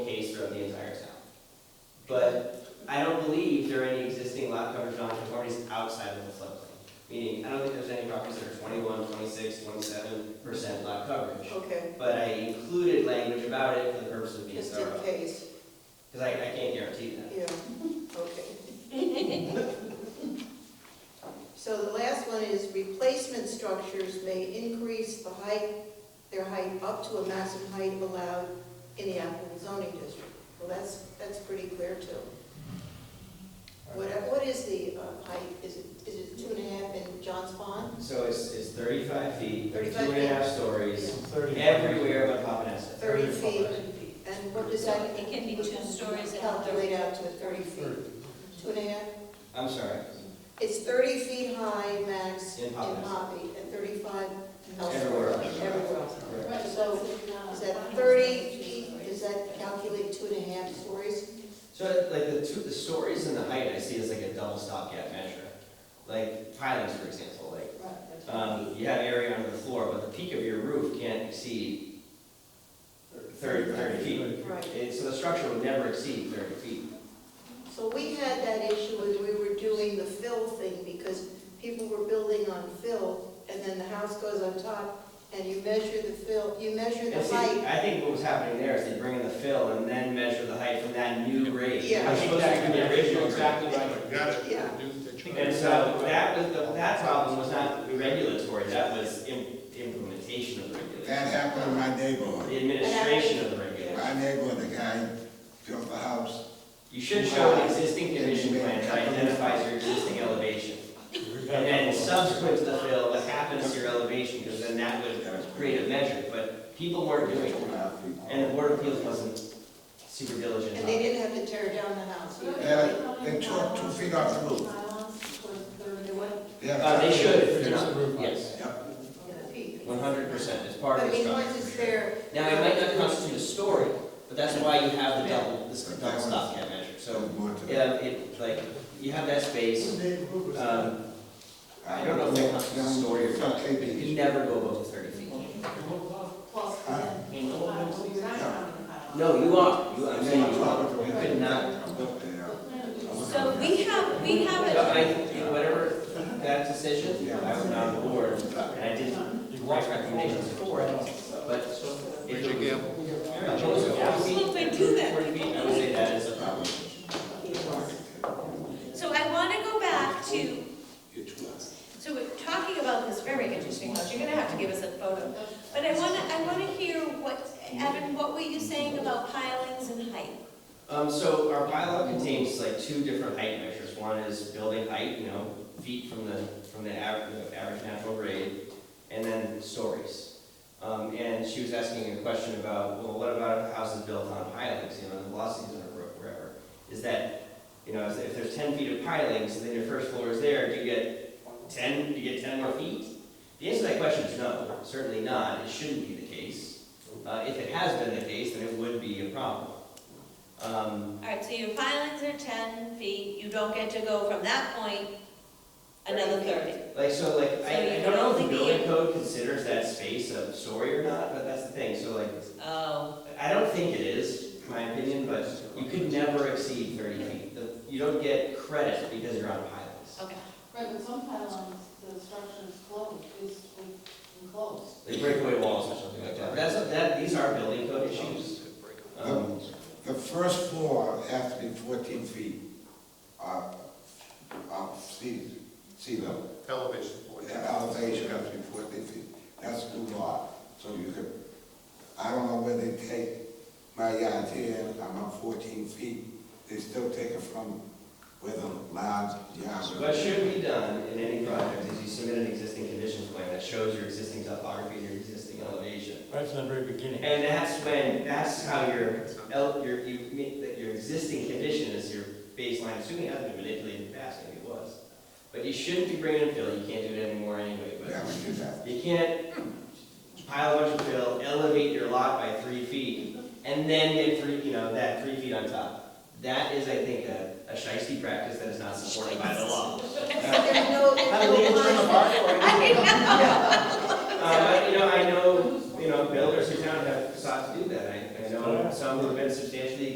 there any existing lot coverage nonconformities outside of the floodplain? Meaning, I don't think there's any properties that are 21, 26, 27 percent lot coverage. Okay, But I included language about it for the purpose of being just in uh, thorough, case, because I, I can't guarantee that. yeah, okay. So the last one is replacement structures may increase the height, their height up to a maximum height allowed in the applicable zoning district. Well, that's, that's pretty clear too. What, what is the uh, height? Is it, is it two and a half in John's Pond? So it's, it's 35 feet, they're two 35 and a half stories, everywhere but Papaneset. Thirty feet, and what does that? It can be two stories and Calculate out to thirty feet. Two and a half? I'm sorry, It's thirty feet high max In in Pompaneset. Hobby, and thirty-five Everywhere elsewhere. else. Everywhere else. correct. So is that thirty feet, does that calculate two and a half stories? So like the two, the stories and the height I see as like a double stopgap measure. Like pilings, for example, like, um, you have area under the floor, but the peak of your roof can't exceed 30 30 feet. Right. And so the structure would never exceed thirty feet. So we had that issue when we were doing the fill thing, because people were building on fill, and then the house goes on top, and you measure the fill, you measure And the see, height. I think what was happening there is they bring in the fill and then measure the height from that new grade. Yeah. I think that could be the original grade. Exactly right. Got it. Yeah. And so that was, the- that problem was not regulatory, that was im- implementation of the That regulation. happened in my neighborhood. The administration of the regulation. My neighbor, the guy built the house, You should show an existing condition plan that identifies your existing elevation. And then subsequent to the fill, what happens to your elevation, because then that would that was create a measure, but people weren't doing it. And the Board of Appeals wasn't super diligent And on they it. didn't have to tear down the house. either. Yeah, they tore two feet off the roof. They went Uh, they should, if they're Fix the roof not, up. yes, Yep, on the peak. one hundred percent, it's part I of the mean, once structure. it's there. Now, it might not constitute a story, but that's why you have the double, this double stopgap measure, so, more to that. yeah, it, like, you have that space, um, I don't know if that constitutes a story or not, but you can never go above the thirty feet. No, you are, you are, I'm saying you are, you could not. So we have, we have But I, a, whatever that decision, I was not on the board, and I did write recommendations for it, but if it was. If it was forty feet, Well, but do that. forty feet, I would say that is a problem. so I want to go back to, so we're talking about this very interesting house, you're going to have to give us a photo. But I want to, I want to hear what, Evan, what were you saying about pilings and height? Um, so our bylaw contains like two different height measures. One is building height, you know, feet from the, from the average, the average natural grade, and then stories. Um, and she was asking a question about, well, what about if a house is built on pilings, you know, the velocities on a roof, wherever? Is that, you know, if if there's ten feet of pilings, and then your first floor is there, do you get ten, do you get ten more feet? The answer to that question is no, certainly not. It shouldn't be the case. Uh, if it has been the case, then it would be a problem. Um, All right, so your pilings are ten feet, you don't get to go from that point another thirty. Like, so like, I, I you don't know if the don't think building it- code considers that space a story or not, but that's the thing, so like, Oh, I don't think it is, my opinion, but you could never exceed thirty feet. The- You don't get credit because you're on pilings. okay. Right, but some pylons, the structure is closed, is enclosed. They break away walls or something like that. That's, that, these are building code issues. Um, The first floor has to be fourteen feet off, off sea, sea level. Elevation. The elevation has to be fourteen feet, that's the law, so you could, I don't know where they take my yard here, I'm on fourteen feet, they still take it from where the large yard. So What was. should be done in any project is you submit an existing conditions plan that shows your existing topography, and your existing elevation. Right from the very beginning. And that's when, that's how your, el- your, you make, that your existing condition is your baseline, assuming it hasn't been manipulated in the past, maybe it was. But you shouldn't be bringing in fill, you can't do it anymore anyway, Yeah, but we do that. you can't pile a bunch of fill, elevate your lot by three feet, and then get three, you know, that three feet on top. That is, I think, a, a shiesty practice that is not supported by the law. Uh, There's no, How do we there's get no from the line. bar for it? Uh, but, you know, I know, you know, builders who town have sought to do that, I, I know some who have been substantially